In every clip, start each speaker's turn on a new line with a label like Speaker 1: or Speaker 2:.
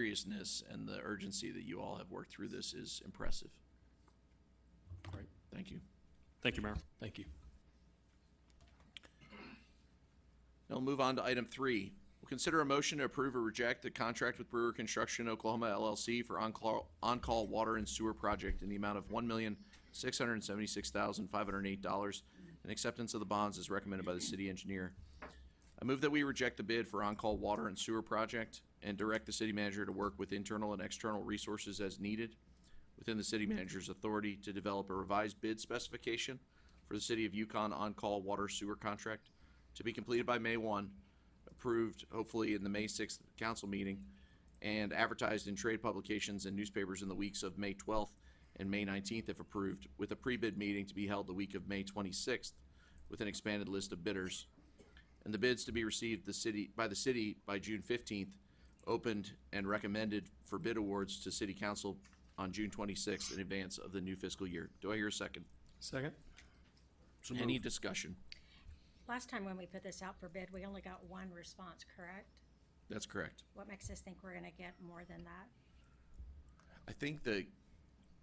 Speaker 1: seriousness and the urgency that you all have worked through this is impressive. All right, thank you.
Speaker 2: Thank you, Mayor.
Speaker 3: Thank you.
Speaker 1: Now we'll move on to item three. We'll consider a motion to approve or reject the contract with Brewer Construction Oklahoma LLC for on-call, on-call water and sewer project in the amount of one million, six hundred and seventy-six thousand, five hundred and eight dollars, and acceptance of the bonds is recommended by the city engineer. I move that we reject the bid for on-call water and sewer project and direct the city manager to work with internal and external resources as needed within the city manager's authority to develop a revised bid specification for the city of Yukon on-call water sewer contract to be completed by May one, approved hopefully in the May sixth council meeting, and advertised in trade publications and newspapers in the weeks of May twelfth and May nineteenth if approved, with a pre-bid meeting to be held the week of May twenty-sixth with an expanded list of bidders and the bids to be received the city, by the city by June fifteenth, opened and recommended for bid awards to city council on June twenty-sixth in advance of the new fiscal year. Do I hear a second?
Speaker 3: Second?
Speaker 1: Any discussion?
Speaker 4: Last time when we put this out for bid, we only got one response, correct?
Speaker 1: That's correct.
Speaker 4: What makes us think we're gonna get more than that?
Speaker 1: I think the,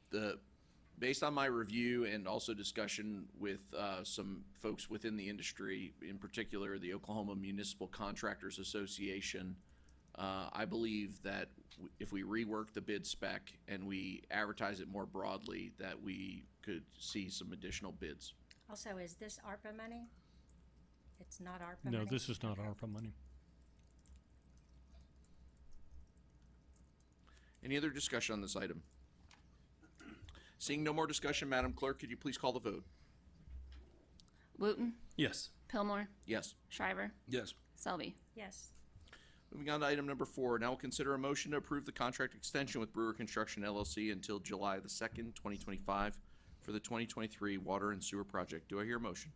Speaker 1: the, based on my review and also discussion with uh, some folks within the industry, in particular the Oklahoma Municipal Contractors Association, uh, I believe that w- if we rework the bid spec and we advertise it more broadly, that we could see some additional bids.
Speaker 4: Also, is this ARPA money? It's not ARPA money?
Speaker 5: No, this is not ARPA money.
Speaker 1: Any other discussion on this item? Seeing no more discussion, Madam Clerk, could you please call the vote?
Speaker 6: Wooten,
Speaker 3: Yes.
Speaker 6: Pillmore,
Speaker 1: Yes.
Speaker 6: Shriver,
Speaker 3: Yes.
Speaker 6: Selby.
Speaker 4: Yes,
Speaker 1: Moving on to item number four, now we'll consider a motion to approve the contract extension with Brewer Construction LLC until July the second, twenty twenty-five for the twenty twenty-three water and sewer project. Do I hear a motion?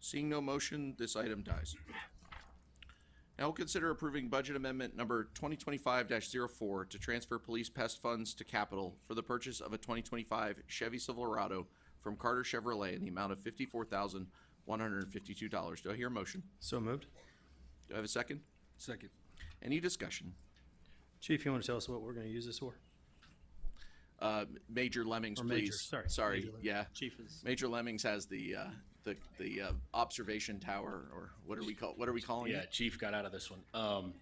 Speaker 1: Seeing no motion, this item dies. Now we'll consider approving budget amendment number twenty twenty-five 4 to transfer police pest funds to capital for the purchase of a twenty twenty-five Chevy Silverado from Carter Chevrolet in the amount of fifty-four thousand, one hundred and fifty-two dollars. Do I hear a motion?
Speaker 3: So moved?
Speaker 1: Do I have a second?
Speaker 3: Second.
Speaker 1: Any discussion?
Speaker 3: Chief, you want to tell us what we're going to use this for?
Speaker 1: Uh, Major Lemmings,
Speaker 3: Or Major,
Speaker 1: please.
Speaker 3: sorry.
Speaker 1: Sorry,
Speaker 3: Major Lemmings.
Speaker 1: yeah.
Speaker 3: Chief is.
Speaker 1: Major Lemmings has the, uh, the, the, uh, observation tower, or what are we call, what are we calling
Speaker 7: Yeah,
Speaker 1: it?
Speaker 7: Chief got out of this one. Um,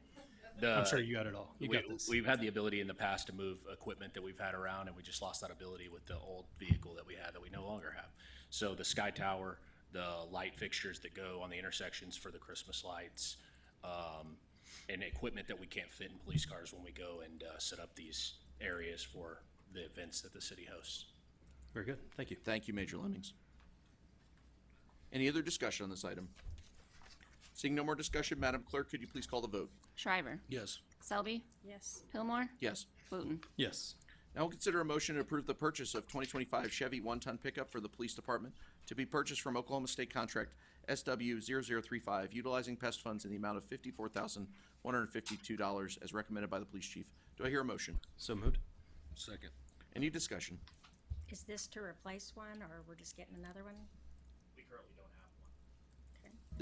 Speaker 7: the,
Speaker 3: I'm sure you got it all. You
Speaker 7: we,
Speaker 3: got this.
Speaker 7: We've had the ability in the past to move equipment that we've had around, and we just lost that ability with the old vehicle that we had that we no longer have. So the sky tower, the light fixtures that go on the intersections for the Christmas lights, um, and equipment that we can't fit in police cars when we go and uh, set up these areas for the events that the city hosts.
Speaker 3: Very good. Thank you.
Speaker 1: Thank you, Major Lemmings. Any other discussion on this item? Seeing no more discussion, Madam Clerk, could you please call the vote?
Speaker 6: Shriver,
Speaker 3: Yes.
Speaker 6: Selby,
Speaker 4: yes,
Speaker 6: Pillmore,
Speaker 1: Yes.
Speaker 6: Wooten.
Speaker 3: Yes.
Speaker 1: Now we'll consider a motion to approve the purchase of 2025 Chevy one-ton pickup for the police department to be purchased from Oklahoma State Contract SW0035, utilizing pest funds in the amount of $54,152 as recommended by the police chief. Do I hear a motion?
Speaker 3: So moved?
Speaker 7: Second.
Speaker 1: Any discussion?
Speaker 4: is this to replace one, or we're just getting another one?
Speaker 7: We currently don't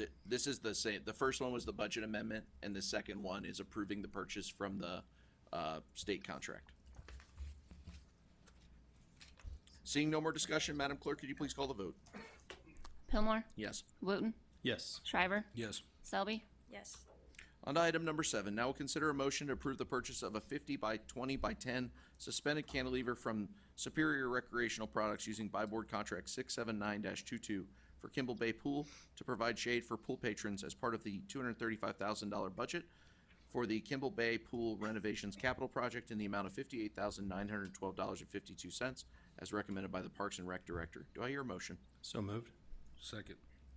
Speaker 7: have one.
Speaker 1: Th- This is the same, the first one was the budget amendment, and the second one is approving the purchase from the uh, state contract. Seeing no more discussion, Madam Clerk, could you please call the vote?
Speaker 6: Pillmore,
Speaker 1: Yes.
Speaker 6: Wooten,
Speaker 3: Yes.
Speaker 6: Shriver,
Speaker 3: Yes.
Speaker 6: Selby,
Speaker 4: Yes,
Speaker 1: On to item number seven, now we'll consider a motion to approve the purchase of a fifty by twenty by ten suspended cantilever from Superior Recreational Products using buy board contract six seven nine 22 for Kimball Bay Pool to provide shade for pool patrons as part of the two hundred thirty-five thousand dollar budget for the Kimball Bay Pool renovations capital project in the amount of fifty-eight thousand nine hundred twelve dollars and fifty-two cents as recommended by the Parks and Rec Director. Do I hear a motion?
Speaker 3: So moved?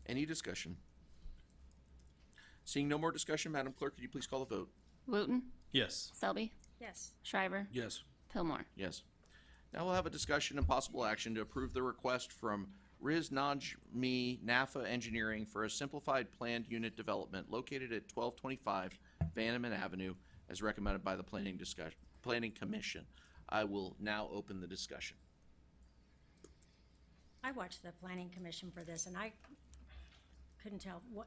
Speaker 1: Any discussion? Seeing no more discussion, Madam Clerk, could you please call the vote?
Speaker 6: Wooten,
Speaker 3: Yes.
Speaker 6: Selby,
Speaker 4: yes,
Speaker 6: Shriver,
Speaker 3: Yes.
Speaker 6: Pillmore.
Speaker 1: Yes. Now we'll have a discussion and possible action to approve the request from Riz Najmi NAFA Engineering for a simplified planned unit development located at twelve twenty-five Vandeman Avenue as recommended by the Planning Discussion, Planning Commission. I will now open the discussion.
Speaker 4: I watched the planning commission for this, and I couldn't tell what,